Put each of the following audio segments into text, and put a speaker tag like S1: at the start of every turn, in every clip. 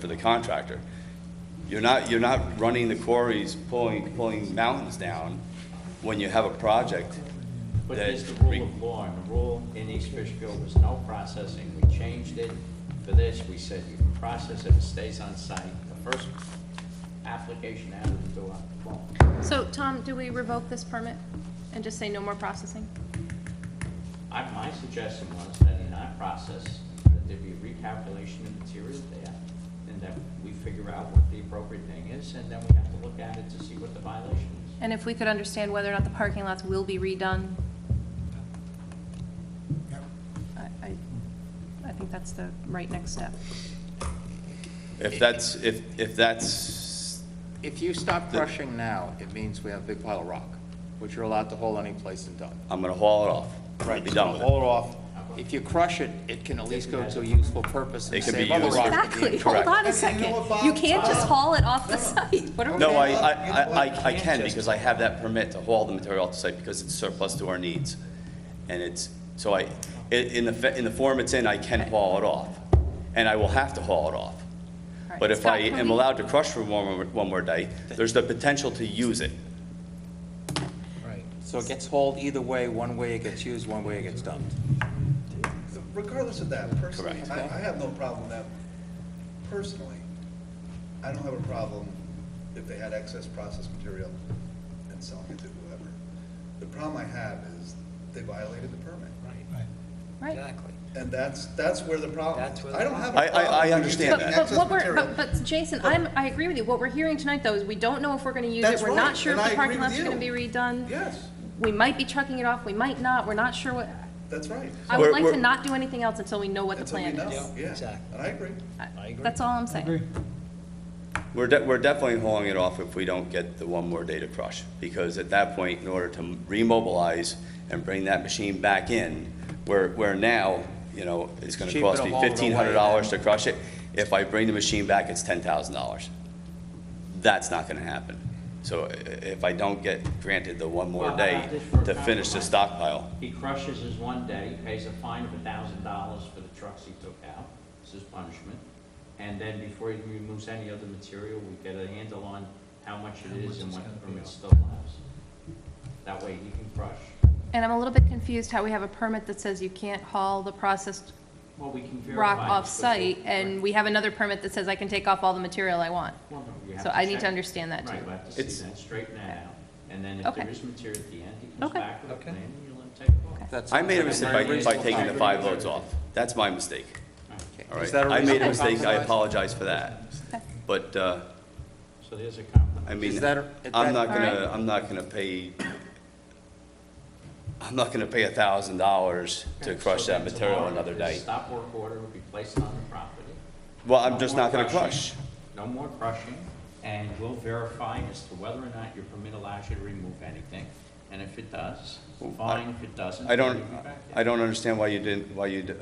S1: for the contractor. You're not, you're not running the quarries, pulling, pulling mountains down when you have a project.
S2: But
S1: that
S2: it's the rule
S1: re-
S2: of law, and the rule in East Fishkill was no processing. We changed it for this, we said you can process if it stays on site. The first application out of the door, well,
S3: So, Tom, do we revoke this permit and just say no more processing?
S2: I, my suggestion was that in our process, that there be a recalculation of material there, and that we figure out what the appropriate thing is, and then we have to look at it to see what the violation is.
S3: And if we could understand whether or not the parking lots will be redone? I, I, I think that's the right next step.
S1: If that's, if, if that's,
S4: If you stop
S1: The-
S4: crushing now, it means we have a big pile of rock, which you're allowed to haul any place and dump.
S1: I'm gonna haul it off. I'm gonna Be done with it.
S4: Haul it off. If you crush it, it can at least go to a useful purpose
S1: It
S4: and
S1: can be
S4: save other
S1: used
S4: rock.
S1: for-
S4: at the end.
S3: Exactly, hold
S1: Correct.
S3: on a
S5: And you
S3: second.
S5: know what, Bob?
S3: You can't just haul it off the site. What are we
S1: No, I,
S3: gonna-
S1: I, I, I- I can, because I have that permit to haul the material off the site because it's surplus to our needs. And it's, so I, i- in the, fa- in the form it's in, I can haul it off, and I will have to haul it off.
S3: All right,
S1: But if
S3: Scott,
S1: I
S3: can
S1: am
S3: we-
S1: allowed to crush for one, more- one more day, there's the potential to use it.
S4: So it gets hauled either way, one way it gets used, one way it gets dumped.
S5: Regardless of that, personally,
S1: Correct.
S5: I, I have no problem with that, personally, I don't have a problem if they had excess processed material and selling it to whoever. The problem I have is they violated the permit,
S3: Right.
S5: and that's, that's where the problem
S6: That's
S5: is.
S6: where
S5: I don't have a
S1: I- I-
S5: problem.
S1: I
S5: with
S1: understand
S5: using
S1: that.
S3: But, but
S5: excess
S3: what we're,
S5: material.
S3: but, but Jason, I'm, I agree with you. What we're hearing tonight, though, is we don't know if we're gonna use it.
S5: That's
S3: We're not
S5: right,
S3: sure if
S5: and
S3: the
S5: I
S3: parking
S5: agree with
S3: lot's gonna be
S5: you.
S3: redone.
S5: Yes,
S3: We might be trucking it off, we might not, we're not sure what,
S5: that's right.
S3: I would
S1: We're-
S3: like to
S1: we're-
S3: not do anything else until we know what the
S5: Until we
S3: plan is.
S5: know, yeah,
S6: exactly.
S5: and I agree.
S3: I-
S6: agree.
S3: That's all I'm saying.
S1: We're, de- we're definitely hauling it off if we don't get the one more day to crush, because at that point, in order to remobilize and bring that machine back in, where, where now, you know, it's gonna
S4: Cheaper to
S1: cost me
S4: haul it away
S1: fifteen hundred dollars to crush it, if I bring the machine back, it's ten thousand dollars. That's not gonna happen. So i- if I don't get granted the one
S2: Well,
S1: more
S2: how
S1: day
S2: about this for a
S1: to finish the
S2: compromise?
S1: stockpile,
S2: He crushes his one day, pays a fine of a thousand dollars for the trucks he took out, it's his punishment. And then before he removes any other material, we get a handle on how much it is and what permit still allows. That way he can crush.
S3: And I'm a little bit confused how we have a permit that says you can't haul the processed
S2: Well, we can verify.
S3: rock
S2: this
S3: off-site,
S2: before-
S3: and
S2: Right.
S3: we have another permit that says I can take off all the material I want.
S2: Well, no, you have
S3: So I need to
S2: check.
S3: understand that, too.
S2: Right, we have to
S1: It's-
S2: see that, straighten that out. And then if
S3: Okay.
S2: there is material at the end, he comes
S3: Okay.
S2: back with a
S4: Okay.
S2: plan and you'll let him take it off.
S4: That's-
S1: I made a
S4: that's
S1: mistake
S4: very
S1: by, by
S4: reasonable
S1: taking the
S4: time.
S1: five loads off. That's my mistake,
S2: All right.
S4: Okay.
S1: all
S4: Is
S1: right?
S4: that a
S1: I made a
S4: reasonable
S1: mistake, I
S4: compromise?
S1: apologize for that. But, uh,
S2: So there's a compromise.
S1: I mean,
S4: Is that- is
S1: I'm
S4: that-
S1: not
S3: All
S1: gonna,
S3: right.
S1: I'm not gonna pay, I'm not gonna pay a thousand dollars to
S2: Okay,
S1: crush
S2: so
S1: that
S2: then
S1: material
S2: tomorrow,
S1: another
S2: the
S1: day.
S2: Stop work order will be placed on the property.
S1: Well, I'm
S2: No
S1: just
S2: more
S1: not gonna crush.
S2: crushing. No more crushing, and we'll verify as to whether or not your permit allows you to remove anything. And if it does,
S1: Well, I-
S2: fine, if it doesn't.
S1: I don't,
S2: you'll be back there.
S1: I don't understand why you didn't, why you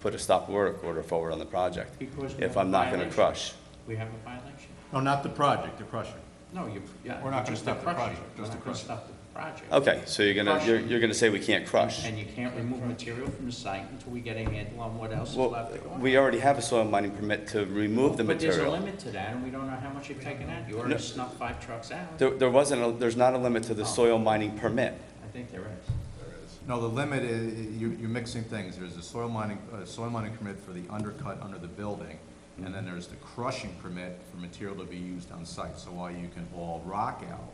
S1: put a stop work order forward on the project
S2: Because we
S1: if
S2: have a
S1: I'm not gonna
S2: violation.
S1: crush.
S2: We have a violation.
S7: No, not the project, the crusher.
S2: No, you, yeah.
S7: We're not gonna
S2: just
S7: stop the
S2: crushing. We're
S7: project, just
S2: not
S7: the
S2: gonna
S7: crushing.
S2: stop the project.
S1: Okay, so you're gonna, you're, you're gonna say we can't crush?
S2: And you can't remove material from the site until we get a handle on what else is
S1: Well,
S2: left to go on.
S1: we already have a soil mining permit to remove the
S2: But there's a
S1: material.
S2: limit to that, and we don't know how much you've taken out. You already snuck five trucks out.
S1: There, there wasn't, a- there's not a limit
S2: Oh.
S1: to the soil mining permit.
S2: I think there is.
S7: No, the limit is, you, you're mixing things. There's a soil mining, uh soil mining permit for the undercut under the building, and then there's the crushing permit for material to be used on site. So while you can haul rock out.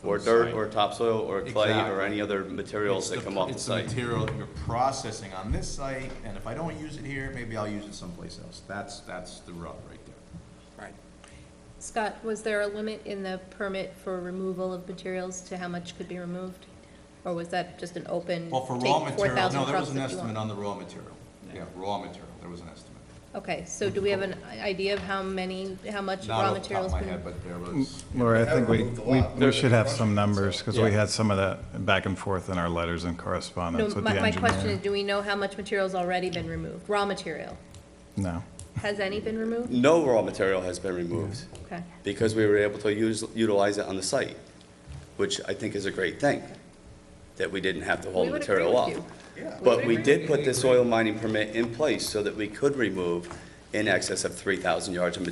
S7: from
S1: Or
S7: the
S1: dirt,
S7: site,
S1: or topsoil, or clay, or
S7: Exactly.
S1: any other materials
S7: it's
S1: that
S7: the-
S1: come off the
S7: It's
S1: site.
S7: the material that you're processing on this site, and if I don't use it here, maybe I'll use it someplace else. That's, that's the rub right there.
S4: Right.
S3: Scott, was there a limit in the permit for removal of materials to how much could be removed? Or was that just an open,
S7: Well, for raw material, no, there was an estimate on the raw material. Yeah, raw material, there was an estimate.
S3: Okay, so do we have an idea of how many, how much
S7: Not off the top of my head, but there was.
S8: Laura, I
S5: Haven't
S8: think we,
S5: moved a
S8: we
S5: lot.
S8: we should have some numbers, because we
S1: Yeah.
S8: had some of that back and forth in our letters and
S3: No,
S8: correspondence with the
S3: my, my
S8: engineer.
S3: question is, do we know how much material's already been removed? Raw material?
S8: No.
S3: Has any been removed?
S1: No raw material has been removed
S3: Okay.
S1: because we were able to use, utilize it on the site, which I think is a great thing, that we didn't have to haul
S3: We would agree
S1: material
S3: with
S1: off.
S3: you.
S5: Yeah.
S1: But
S3: would
S1: we
S3: agree
S1: did put this oil mining permit in place so that we could remove in excess of 3,000 yards of